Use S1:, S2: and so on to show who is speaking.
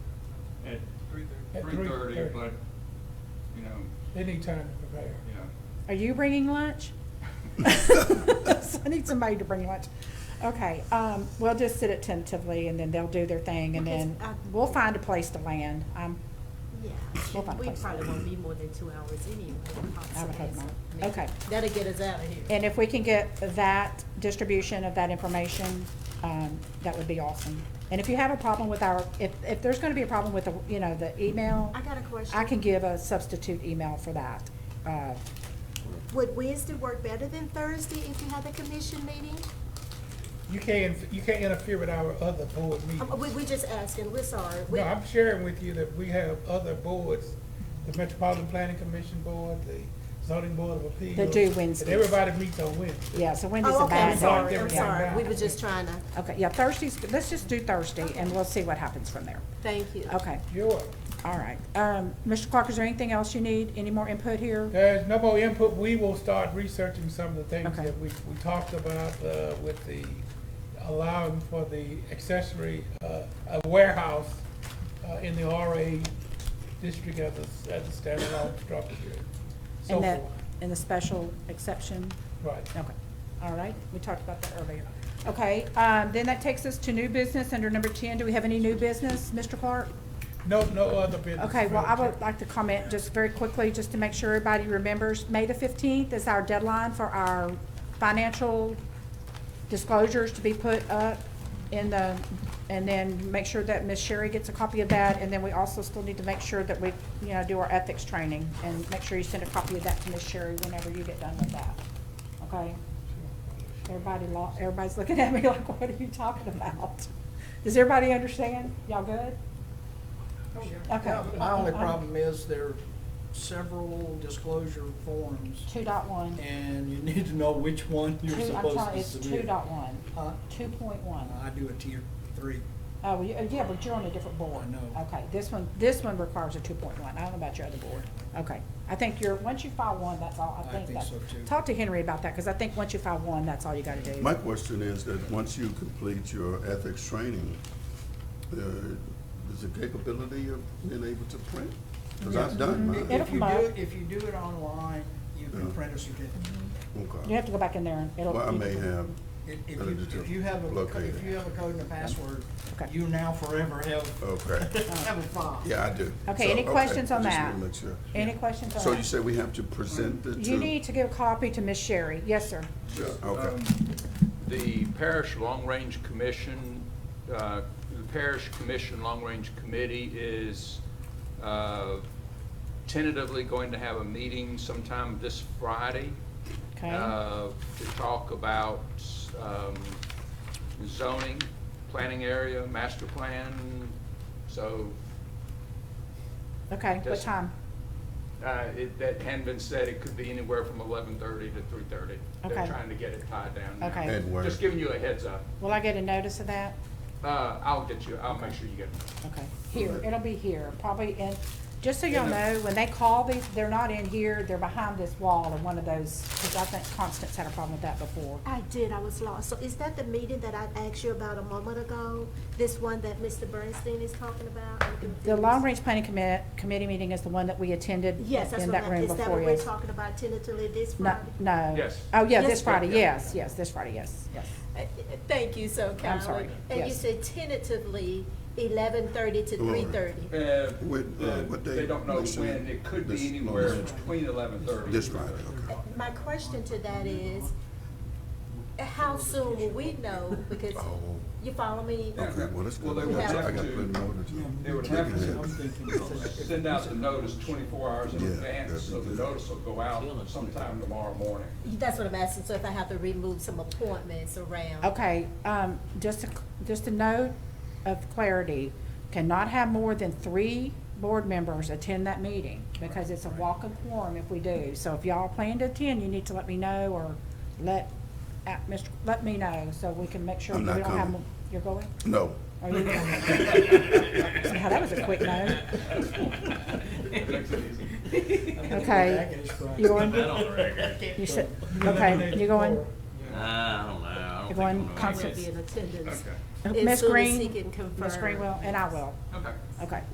S1: At
S2: three thirty,
S1: 3:30.
S2: but, you know,
S1: They need time to prepare.
S2: yeah.
S3: Are you bringing lunch? I need somebody to bring lunch. Okay, um, we'll just sit it tentatively and then they'll do their thing and then
S4: Because I-
S3: we'll find a place to land. Um, We'll
S4: Yeah,
S3: find a
S4: we
S3: place.
S4: probably won't be more than two hours anyway.
S3: I would hope
S4: possibly, so,
S3: not.
S4: I mean,
S3: Okay.
S4: That'll get us out of here.
S3: and if we can get that distribution of that information, um, that would be awesome. And if you have a problem with our, if, if there's gonna be a problem with the, you know, the email,
S4: I got a question.
S3: I can give a substitute email for that. Uh,
S4: Would Wednesday work better than Thursday if you had the commission meeting?
S1: You can't, you can't interfere with our other board
S4: Um, We,
S1: meetings.
S4: we just asking, we're sorry. We-
S1: No, I'm sharing with you that we have other boards, the Metropolitan Planning Commission Board, the zoning board of appeals.
S3: That do
S1: and
S3: Wednesdays.
S1: Everybody meets on Wednesday.
S3: Yeah, so Wendy's a
S4: Oh, okay, I'm
S3: bad day.
S4: sorry, I'm
S1: Everything
S4: sorry.
S1: back.
S4: We were just trying to,
S3: Okay, yeah, Thursday's, let's just do Thursday and we'll see what happens from there.
S4: thank you.
S3: Okay,
S1: Sure.
S3: all right. Um, Mr. Clark, is there anything else you need? Any more input here?
S1: There's no more input. We will start researching some of the things
S3: Okay.
S1: that we, we talked about, uh, with the allowing for the accessory, uh, a warehouse, uh, in the RA district as a, as a standalone structure. So
S3: And that,
S1: forth.
S3: and the special exception?
S1: Right.
S3: Okay, all right, we talked about that earlier. Okay, um, then that takes us to new business under number ten. Do we have any new business, Mr. Clark?
S1: No, no other business.
S3: Okay, well, I
S1: Madam
S3: would
S1: Chair.
S3: like to comment just very quickly, just to make sure everybody remembers, May the fifteenth is our deadline for our financial disclosures to be put up in the, and then make sure that Ms. Sherry gets a copy of that, and then we also still need to make sure that we, you know, do our ethics training, and make sure you send a copy of that to Ms. Sherry whenever you get done with that, okay? Everybody, lo- everybody's looking at me like, what are you talking about? Does everybody understand? Y'all good? Okay.
S5: Yeah, My only problem is there are several disclosure forms,
S3: Two dot one.
S5: and you need to know which one
S3: Two,
S5: you're
S3: I'm
S5: supposed
S3: sorry,
S5: to
S3: it's two
S5: submit.
S3: dot one,
S5: Huh?
S3: two point one.
S5: I do a tier three.
S3: Oh, well, you- uh, yeah, but you're on a different board.
S5: I know.
S3: Okay, this one, this one requires a two point one, I don't know about your other board. Okay, I think you're, once you file one, that's all, I
S5: I
S3: think
S5: think
S3: that's.
S5: so, too.
S3: Talk to Henry about that, because I think once you file one, that's all you gotta do.
S6: My question is that once you complete your ethics training, uh, is the capability of being able to print? Because I've done
S5: If-
S6: mine.
S3: Mm-hmm. It'll
S5: If
S3: come
S5: you do,
S3: up.
S5: it- if you do it online, you can
S6: Yeah.
S5: print a certificate.
S3: You
S6: Okay.
S3: have to go back in there and it'll.
S6: Well, I
S3: you
S6: may
S3: can-
S6: have,
S5: If if
S6: Better
S5: you,
S6: just
S5: if you have a, co-
S6: locate
S5: if
S6: it.
S5: you have a code and a password,
S3: Okay.
S5: you now forever have,
S6: okay,
S5: have a file.
S6: Oh. yeah, I do.
S3: Uh, Okay,
S6: So,
S3: any questions on
S6: I just
S3: that?
S6: wanna make sure.
S3: Any questions on
S6: So
S3: that?
S6: you say we have to present the two?
S3: You need to give a copy to Miss Sherry, yes, sir.
S6: Yeah, Okay,
S2: Um, The Parish Long Range Commission, uh, the Parish Commission Long Range Committee is uh, tentatively going to have a meeting sometime this Friday
S3: Okay.
S2: uh, to talk about um, zoning, planning area, master plan. So
S3: Okay, what
S2: Yes.
S3: time?
S2: uh, it- that hadn't been said, it could be anywhere from 11:30 to 3:30. They're
S3: Okay.
S2: trying to get it tied down now.
S3: Okay.
S6: Ed, where-
S2: Just giving you a heads up.
S3: Will I get a notice of that?
S2: Uh, I'll get you, I'll make sure you get it.
S3: Okay, here, it'll be here, probably in, just so y'all
S6: In the-
S3: know, when they call these, they're not in here, they're behind this wall in one of those, because I think Constance had a problem with that before.
S4: I did, I was lost. So is that the meeting that I asked you about a moment ago? This one that Mr. Bernstein is talking about? I'm
S3: The
S4: confused.
S3: Long Range Planning Commit, Committee meeting is the one that we attended in
S4: Yes, that's what
S3: that
S4: I,
S3: room
S4: is that
S3: before,
S4: what we're
S3: yes.
S4: talking about tentatively this
S3: No,
S4: Friday?
S3: no.
S2: Yes.
S3: Oh, yeah,
S4: Yes,
S3: this
S4: Friday.
S3: Friday, yes, yes, this Friday, yes, yes.
S4: Uh, Thank you so kindly.
S3: sorry.
S4: And you
S3: Yes.
S4: said tentatively eleven thirty to
S6: Glory.
S4: three thirty.
S2: Uh,
S6: When, uh,
S2: the-
S6: what
S2: They
S6: day?
S2: don't know
S6: Next week?
S2: when, it could be
S6: This- no,
S2: anywhere
S6: this-
S2: between 11:30.
S6: this Friday, okay.
S4: My question to that is, uh, how soon will we know? Because
S6: Oh,
S4: you follow me?
S6: okay, well, that's
S2: Well, they
S6: good. I
S4: would
S6: got I
S2: have
S6: got to
S2: to-
S6: put an order to.
S2: They would have to send out the notice 24 hours in
S6: Yeah,
S2: advance,
S6: that'd be
S2: so the
S6: good.
S2: notice will go out sometime tomorrow morning.
S4: That's what I'm asking, so if I have to remove some appointments around.
S3: Okay, um, just a, just a note of clarity, cannot have more than three board members attend that meeting, because it's a walk of quorum if we do. So if y'all plan to attend, you need to let me know, or let, uh, Mr., let me know, so we can make sure
S6: I'm
S3: that we
S6: not
S3: don't have,
S6: coming.
S3: mo- you're going?
S6: No,
S3: Are you going? Now, that was a quick no.
S2: Makes it easy.
S3: Okay. You going? You said, okay, you going,
S7: Nah, I don't know. I
S3: You're going
S7: don't think I'm gonna make
S3: constant-
S4: Will be in attendance.
S2: Okay,
S4: As
S3: Ms.
S4: soon as
S3: Green?
S4: he can confirm.
S3: Ms. Green will, and I will,
S2: okay.
S3: okay.